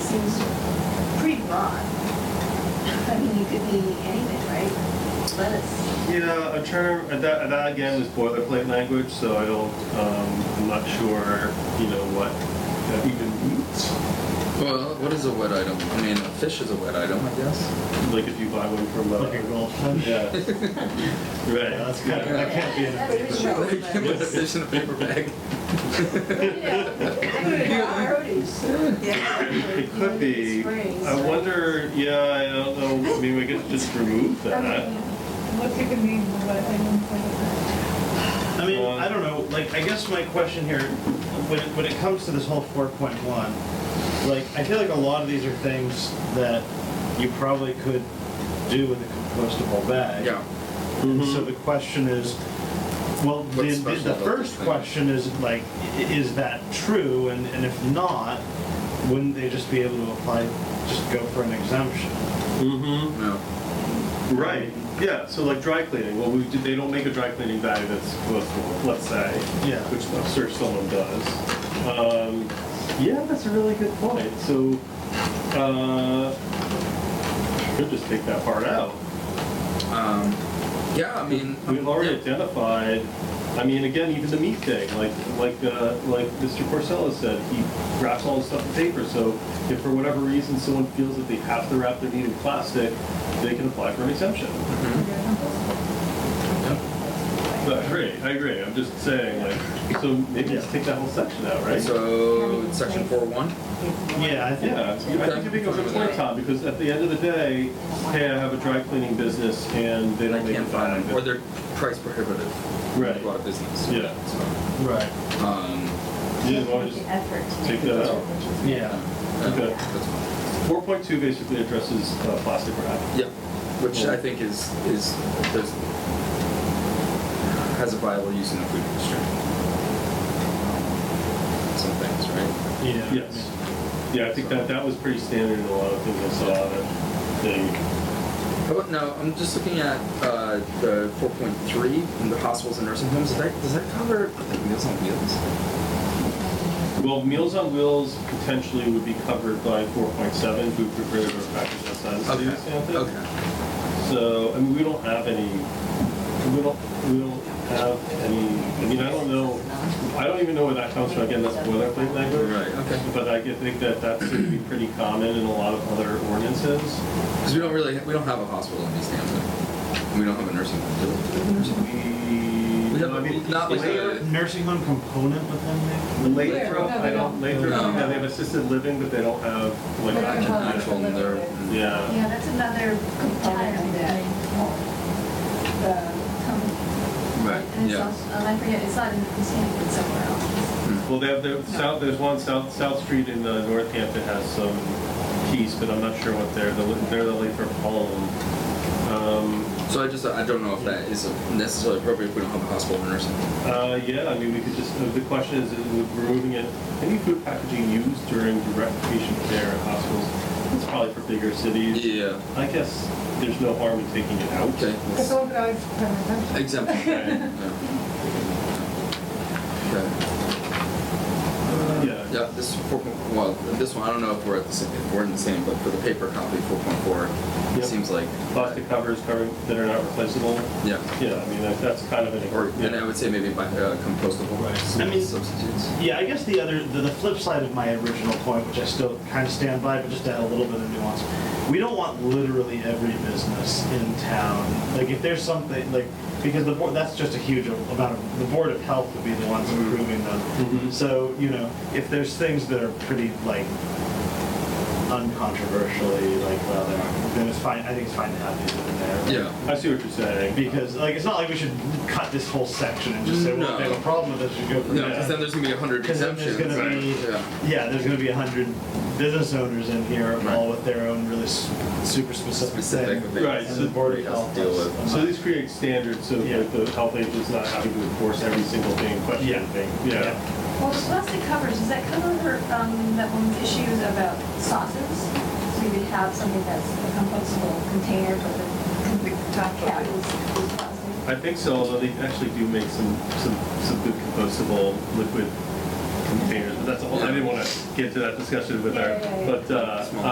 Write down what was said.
seems pretty broad. I mean, you could be anything, right? Lettuce. Yeah, a term, uh, that, that again is boilerplate language, so I don't, um, I'm not sure, you know, what that even means. Well, what is a wet item? I mean, a fish is a wet item, I guess. Like if you buy one from, uh, Like a roll fish? yeah. Right. That's kind Yeah. of, that can't be in a That's paper. true. You can put a fish in a paper It bag. it could be, I wonder, yeah, I don't know, I mean, we could just remove that. What could it mean, what I don't know. I mean, Um, I don't know, like, I guess my question here, when it, when it comes to this whole four point one, like, I feel like a lot of these are things that you probably could do with a compostable bag. Yeah. And So the question is, well, the, What's the special the about first this thing? question is like, i- is that true? And, and if not, wouldn't they just be able to apply, just go for an exemption? Mm-hmm, No. right, yeah, so like dry cleaning, well, we, they don't make a dry cleaning bag that's compostable, let's say. Yeah. Which I'm sure someone does. Um, yeah, that's a really good point, so, uh, could just take that part out. Um, yeah, I mean. We've already yeah. identified, I mean, again, even the meat thing, like, like, uh, like Mr. Porcella said, he wraps all his stuff in paper, so if for whatever reason someone feels that they have to wrap their meat in plastic, they can apply for an exemption. Mm-hmm. No, I agree, I agree, I'm just saying, like, so maybe just take that whole section out, right? So, it's section four oh one. Yeah, I think, Yeah, I think it becomes a point, Tom, because at the end of the day, hey, I have a dry cleaning business and they I don't make can't it find them, or back. they're price prohibitive. Right. A lot of business. Yeah. So, right, um, You want to just Effort. take that out? yeah. Okay. That's fine. Four point two basically addresses uh, plastic wrap. Yeah, which Cool. I think is is there's has a viable use in the food industry. Um, Some things, right? Yeah. Yes. Yeah, I think that that was pretty standard in a lot of things I saw that they. How about Oh, no? I'm just looking at uh, the 4.3 in the hospitals and nursing homes. Does that does that cover like, meals on wheels? Well, Meals on Wheels potentially would be covered by four point seven, food prepared or packaged outside of the city of Santa. Okay. So, I mean, we don't have any, we don't, we don't have any, I mean, I don't know, I don't even know where that comes from, again, that's boilerplate language. Right, okay. But I get- think that that seems to be pretty common in a lot of other ordinances. Because we don't really we don't have a hospital in East Hampton. We don't have a nursing home. Do We, we? We have no, I mean, not like is there- a- Nursing home component within there? Lathrop, No, I they don't, don't. Lathrop, No. yeah, they have assisted living, but they don't have like They don't active have medical. Actual in there. Yeah, Yeah, that's another component of that. The company. Right. And it's Yeah. also, and I forget, it's not in Sanford, it's somewhere else. well, they have, their south, there's one, South, South Street in uh, Northampton has some piece, but I'm not sure what they're, the- they're the Lathrop home. Um, So I just I don't know if that is necessarily appropriate if we don't have a hospital or nursing home. Uh, yeah, I mean, we could just, uh, the question is, is with removing it, any food packaging used during direct patient care at hospitals, it's probably for bigger cities. Yeah. I guess there's no harm in taking it out. Okay. let's- That's all that I've heard. Exemption. Okay. Okay. Yeah, Yeah, this four point, well, this one, I don't know if we're at the same, if we're in the same, but for the paper copy, four point four, Yep. it seems like, plastic covers covering, that are not replaceable. yeah. Yeah, I mean, that- that's kind of an. Or, yeah. and I would say maybe by uh, compostable I mean- substitutes. Yeah, I guess the other, the, the flip side of my original point, which I still kind of stand by, but just to add a little bit of nuance, we don't want literally every business in town. Like, if there's something, like, because the board, that's just a huge amount of, the Board of Health would be the ones Mm-hmm. approving them. So, you know, if there's things that are pretty, like, uncontroversially, like, well, they aren't, then it's fine, I think it's fine to have these in there. Yeah, I see what you're saying. Because, like, it's not like we should cut this whole section and just say, well, if they have a No. problem with this, you go for no, that. because then there's gonna be a hundred Because then exemptions. there's gonna be, Yeah, yeah, there's gonna be a hundred business owners in here, Right. all with their own really s- super specific specific. thing. things Right, that so the Board of we have to Health Deal has- with. So these create standards so Yeah. that the health agent's not having to enforce every single thing, question Yeah. thing. Yeah. Well, the plastic covers, does that cover, um, that woman's issues about sauces? So you could have something that's a compostable container, but the, the top cap is is plastic. I think so, although they actually do make some, some, some good compostable liquid containers, but that's a whole, I didn't want to get into that discussion with Yeah, our, yeah, yeah. but, uh,